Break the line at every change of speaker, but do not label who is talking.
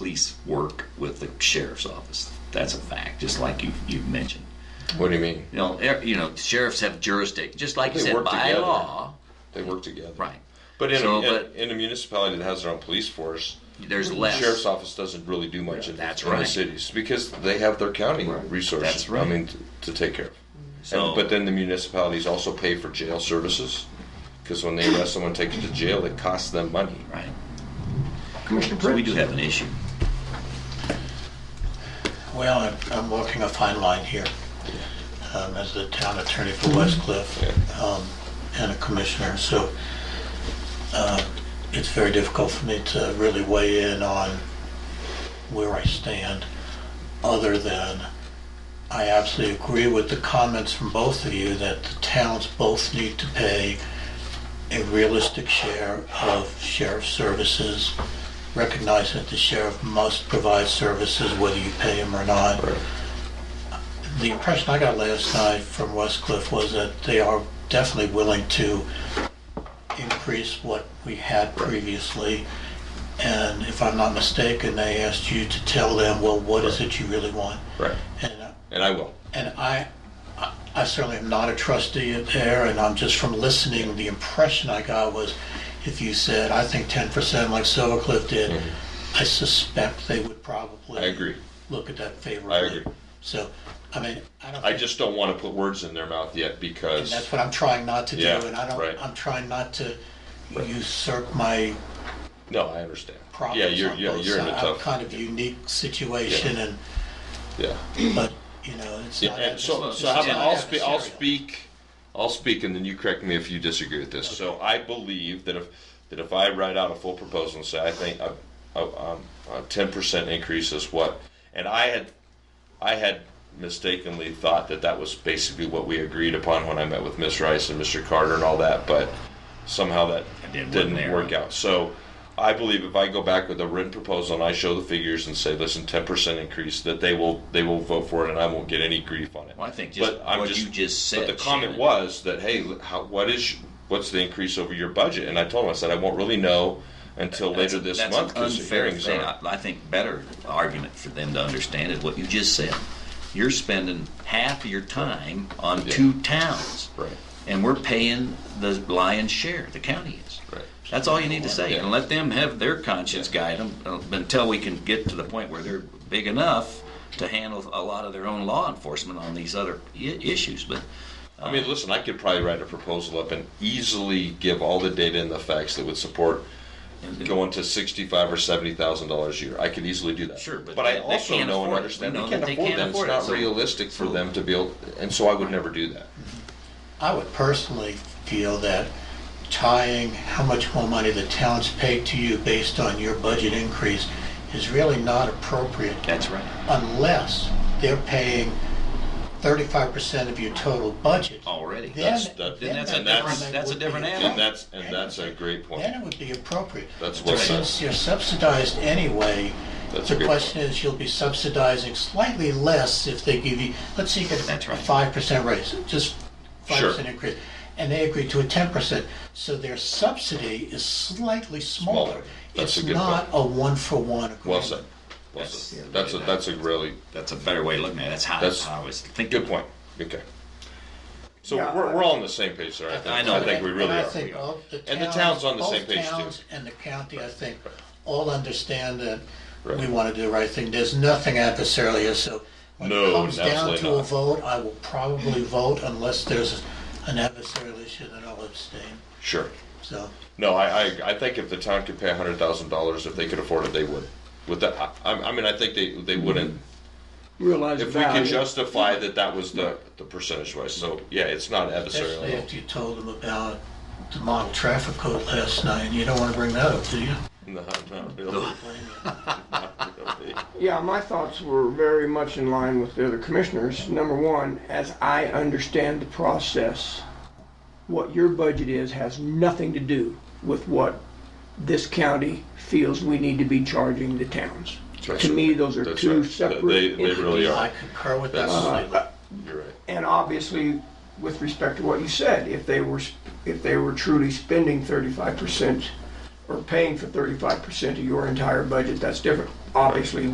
police work with the sheriff's office. That's a fact, just like you, you've mentioned.
What do you mean?
You know, er, you know, sheriffs have jurisdiction, just like you
They
said,
work
by
together.
law,
They work together.
right.
But in,
So,
a,
but-
in, in a municipality that has their own police force,
There's
the
less.
sheriff's office doesn't really do much in,
That's
in the
right.
cities because they have their county resources.
That's right.
I mean, to, to take care of.
So-
And- but then the municipalities also pay for jail services because when they arrest someone, take them to jail, it costs them money.
Right.
Commissioner
So we
Prince?
do have an issue.
Well, I'm- I'm walking a fine line here um, as the town attorney for West Cliff um, and a commissioner, so uh, it's very difficult for me to really weigh in on where I stand, other than I absolutely agree with the comments from both of you that the towns both need to pay a realistic share of sheriff services recognize that the sheriff must provide services whether you pay him or not. The impression I got last night from West Cliff was that they are definitely willing to increase what we had previously. And if I'm not mistaken, they asked you to tell them, well, what is it you really want?
Right.
And
And I will.
and I, I- I certainly am not a trustee there, and I'm just from listening, the impression I got was, if you said, I think ten percent like Silver Cliff did, I suspect they would probably.
Mm-hmm. I agree.
Look at that favorably.
agree.
So, I mean, I don't.
I
think-
just don't want to put words in their mouth yet because.
and that's what I'm trying not to do,
Yeah,
and I
right.
don't, I'm trying not to
Right.
usurp my
no, I understand.
problems
Yeah,
on both
you're,
sides.
yeah, you're in a
I'm
tough.
Kind of unique situation, and,
yeah.
but, you know, it's
Yeah,
not.
and so,
it's
so
not
how about- I'll,
adversarial.
spe- I'll speak, I'll speak, and then you correct me if you disagree with this. So I believe that if that if I write out a full proposal and say I think a um, ten percent increase is what, and I had I had mistakenly thought that that was basically what we agreed upon when I met with Miss Rice and Mr. Carter and all that, but somehow that
It
didn't,
didn't there.
work out. So I believe if I go back with a written proposal and I show the figures and say, listen, ten percent increase, that they will they will vote for it and I won't get any grief on it.
Well, I think just
I'm
what you just said,
But the comment
Shannon.
was that hey, how, what is what's the increase over your budget? And I told him I said I won't really know until
That's-
later this
that's
month
an
because the
unfair
hearings
thing.
are.
I, I think better argument for them to understand is what you just said. You're spending half of your time on
Yeah.
two towns,
Right.
and we're paying the lion's share. The county is.
Right.
That's all you need to say, and let them have their conscience guide them uh, until we can get to the point where they're big enough to handle a lot of their own law enforcement on these other I- issues. But
I mean, listen, I could probably write a proposal up and easily give all the data and the facts that would support going to sixty-five or seventy thousand dollars a year. I could easily do that.
Sure, but
I
they- they
also
can't
know and
afford it.
understand
We
they
know
can't
that they
afford
can't
them. It's
afford
not
it, so-
realistic for them to be able, and so I would never do that.
I would personally feel that tying how much more money the town's paid to you based on your budget increase is really not appropriate
that's right.
unless they're paying thirty-five percent of your total budget.
Already.
Then-
Oh, That's- that-
then
that's
a
it would
different-
be-
that's a different
then
animal.
And that's and that's a great point.
Then it would be appropriate.
That's
But
well said.
Since you're subsidized anyway,
That's a
the
good
question is, you'll be subsidizing slightly less if they give you, let's say you get
That's
a
right.
five percent raise, just five
Sure.
percent increase. And they agree to a ten percent, so their subsidy is slightly
Smaller.
smaller.
That's a
It's
good
not a one-for-one agreement.
Well said. Well
That's-
said.
yeah,
That's a
that-
that's a really
That's a better way of looking at it. That's how,
That's-
how I was thinking.
good point. Okay. So
Yeah,
we're,
I-
we're all on the same page there. I think.
I know
I think
that.
we really
and I
are.
think both
And the town's on the same page, too.
Both towns and the county, I think, all understand that we
Right.
want to do the right thing. There's nothing adversarial here, so when
No,
it comes down
absolutely
to a
not.
vote, I will probably vote unless there's an adversarial issue, then I'll abstain.
Sure.
So,
No, I, I, I think if the town could pay a hundred thousand dollars, if they could afford it, they would. With that, I, I'm- I mean, I think they, they wouldn't.
Realize
If we could
Mm. value.
justify that that was the, the percentage wise, so, yeah, it's not
especially
adversarial.
after you told them about the model traffic code last night, and you don't want to bring that up, do you?
No, not really. Not really.
Yeah, my thoughts were very much in line with the other commissioners. Number one, as I understand the process, what your budget is has nothing to do with what this county feels we need to be charging the towns.
That's
To me,
right.
those are
That's
two
right.
separate.
They, they really
I
are.
concur with that
That's-
slightly.
You're right.
And obviously, with respect to what you said, if they were, sp- if they were truly spending thirty-five percent or paying for thirty-five percent of your entire budget, that's different. obviously